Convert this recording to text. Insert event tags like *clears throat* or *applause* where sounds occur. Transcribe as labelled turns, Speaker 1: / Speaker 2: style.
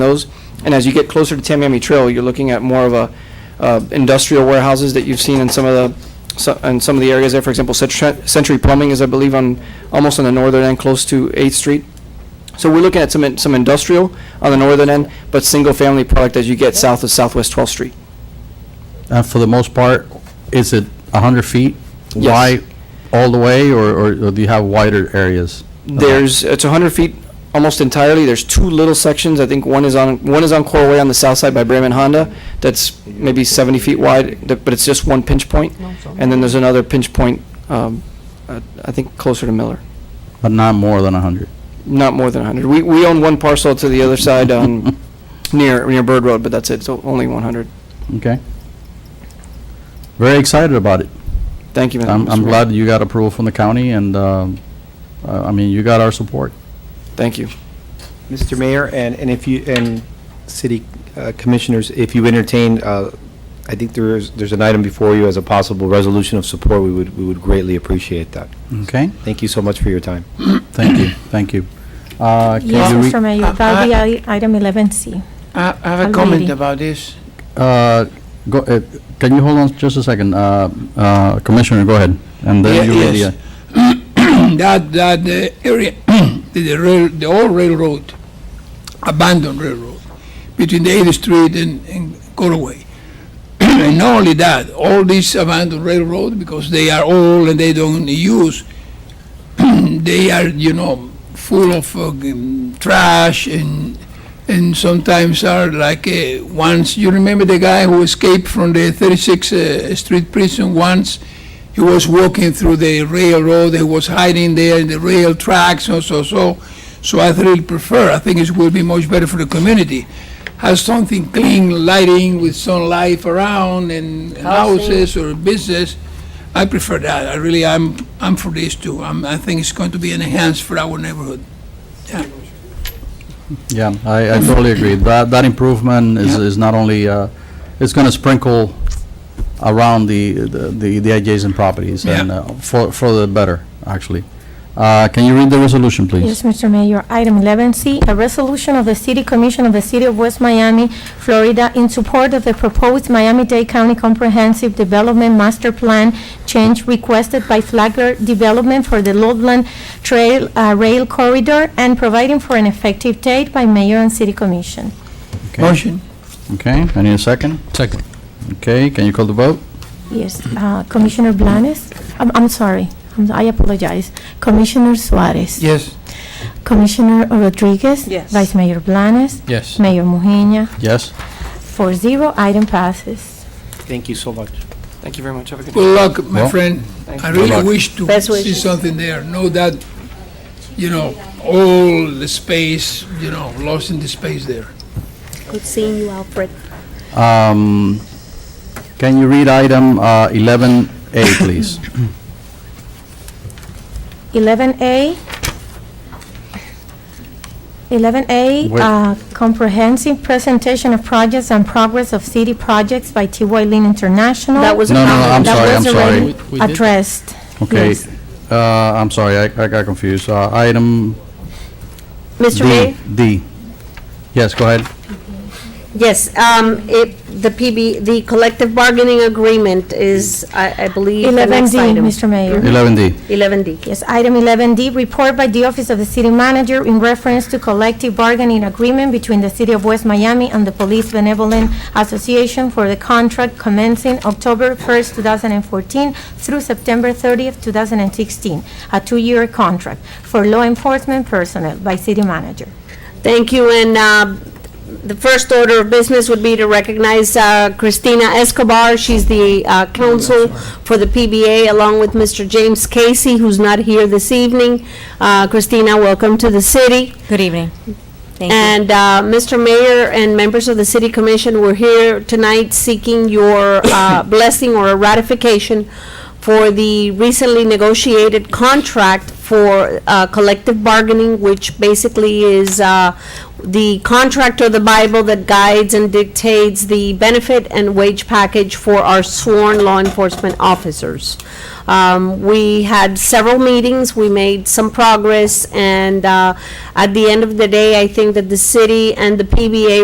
Speaker 1: those. And as you get closer to Tamiami Trail, you're looking at more of a uh, industrial warehouses that you've seen in some of the, so- in some of the areas there. For example, Century Century Plumbing is, I believe, on, almost on the northern end, close to 8th Street. So we're looking at some, in- some industrial on the northern end, but single-family product as you get south of Southwest 12th Street.
Speaker 2: Uh, For the most part, is it 100 feet
Speaker 1: Yes.
Speaker 2: wide all the way, or or- or do you have wider areas?
Speaker 1: There's, it's 100 feet almost entirely. There's two little sections. I think one is on, one is on Coral Way on the south side by Bremen Honda. That's maybe 70 feet wide, th- but it's just one pinch point. And then there's another pinch point, um, uh, I think closer to Miller,
Speaker 2: But not more than 100?
Speaker 1: not more than 100. We, we own one parcel to the other side
Speaker 2: *laughs*
Speaker 1: on, near, near Bird Road, but that's it, so only 100.
Speaker 2: Okay. Very excited about it.
Speaker 1: Thank you, Mr.
Speaker 2: I'm I'm
Speaker 1: Mayor.
Speaker 2: glad you got approval from the county, and, um, I I mean, you got our support.
Speaker 1: Thank you.
Speaker 3: Mr. Mayor, and, and if you, and city uh, commissioners, if you entertain, uh, I think there is, there's an item before you as a possible resolution of support, we would, we would greatly appreciate that.
Speaker 2: Okay?
Speaker 3: Thank you so much for your time.
Speaker 2: Thank you, thank you. Uh, can
Speaker 4: Yes,
Speaker 2: you re-
Speaker 4: Mr. Mayor, that
Speaker 5: I-
Speaker 4: be i- item 11C.
Speaker 5: I I have a
Speaker 4: Already.
Speaker 5: comment about this.
Speaker 2: uh, go- uh, Can you hold on just a second? Uh, uh, Commissioner, go ahead. And then
Speaker 5: Ye-
Speaker 2: you read
Speaker 5: yes.
Speaker 2: the-
Speaker 5: *clears throat* That, that the area, *clears throat* the rail, the old railroad, abandoned railroad, between the 8th Street and, and Coraway. *clears throat* And not only that, all these abandoned railroad, because they are old and they don't use, *clears throat* they are, you know, full of uh, um, trash and, and sometimes are like, uh, once, you remember the guy who escaped from the 36th uh, Street prison once? He was walking through the railroad, he was hiding there in the rail tracks, so, so, so. So I really prefer, I think it will be much better for the community. Have something clean, lighting with some life around and houses or business. I prefer that, I really, I'm, I'm for this too. I'm, I think it's going to be an enhanced for our neighborhood. Yeah.
Speaker 2: Yeah, I, I totally agree. That, that improvement is,
Speaker 5: Yeah.
Speaker 2: is not only, uh, it's gonna sprinkle around the, the, the adjacent properties and
Speaker 5: Yeah.
Speaker 2: uh, for, for the better, actually. Uh, can you read the resolution,
Speaker 4: Yes,
Speaker 2: please?
Speaker 4: Mr. Mayor, item 11C, a resolution of the City Commission of the City of West Miami, Florida, in support of the proposed Miami-Dade County Comprehensive Development Master Plan change requested by Flagler Development for the Loveland Trail uh, Rail Corridor and providing for an effective date by mayor and city commission.
Speaker 2: Okay.
Speaker 5: Motion?
Speaker 2: Okay, I need a second? Second. Okay, can you call the vote?
Speaker 4: Yes, uh, Commissioner Blanes, I'm, I'm sorry, I'm- I apologize. Commissioner Suarez.
Speaker 5: Yes.
Speaker 4: Commissioner Rodriguez?
Speaker 6: Yes.
Speaker 4: Vice Mayor Blanes?
Speaker 2: Yes.
Speaker 4: Mayor Mujina?
Speaker 2: Yes?
Speaker 4: Four zero, item passes.
Speaker 3: Thank you so much.
Speaker 1: Thank you very much. Have a good day.
Speaker 5: Good luck, my
Speaker 2: Well,
Speaker 5: friend. I
Speaker 1: you.
Speaker 2: Good luck.
Speaker 5: really wish to
Speaker 6: Best
Speaker 5: see
Speaker 6: wishes.
Speaker 5: something there. Know that, you know, all the space, you know, lost in the space there.
Speaker 6: Good seeing you, Alfred.
Speaker 2: Um, can you read item, uh, eleven A,
Speaker 4: *laughs*
Speaker 2: please?
Speaker 4: Eleven A. Eleven A,
Speaker 2: Wait.
Speaker 4: uh, comprehensive presentation of projects and progress of city projects by T.Y. Lin International.
Speaker 6: That was a
Speaker 2: No, no, I'm
Speaker 6: comment.
Speaker 4: That
Speaker 2: sorry,
Speaker 4: was
Speaker 2: I'm sorry.
Speaker 4: already Addressed.
Speaker 2: Okay,
Speaker 4: Yes.
Speaker 2: uh, I'm sorry, I, I got confused. Uh, item
Speaker 6: Mr. Mayor?
Speaker 2: D, D. Yes, go ahead.
Speaker 6: Yes, um, it, the PB, the collective bargaining agreement is, I, I believe, the
Speaker 4: Eleven
Speaker 6: next
Speaker 4: D,
Speaker 6: item.
Speaker 4: Mr. Mayor.
Speaker 2: Eleven D.
Speaker 6: Eleven D.
Speaker 4: Yes, item 11D, report by the Office of the City Manager in reference to collective bargaining agreement between the City of West Miami and the Police Benevolent Association for the contract commencing October 1st, 2014 through September 30th, 2016, a two-year contract for law enforcement personnel by City Manager.
Speaker 6: Thank you, and uh, the first order of business would be to recognize uh, Christina Escobar. She's the uh, counsel for the PBA, along with Mr. James Casey, who's not here this evening. Uh, Christina, welcome to the city.
Speaker 7: Good evening. Thank you.
Speaker 6: And uh, Mr. Mayor and members of the City
Speaker 7: *coughs*
Speaker 6: Commission, we're here tonight seeking your uh, blessing or ratification for the recently negotiated contract for uh, collective bargaining, which basically is uh, the contract or the Bible that guides and dictates the benefit and wage package for our sworn law enforcement officers. Um, We had several meetings, we made some progress, and uh, at the end of the day, I think that the city and the PBA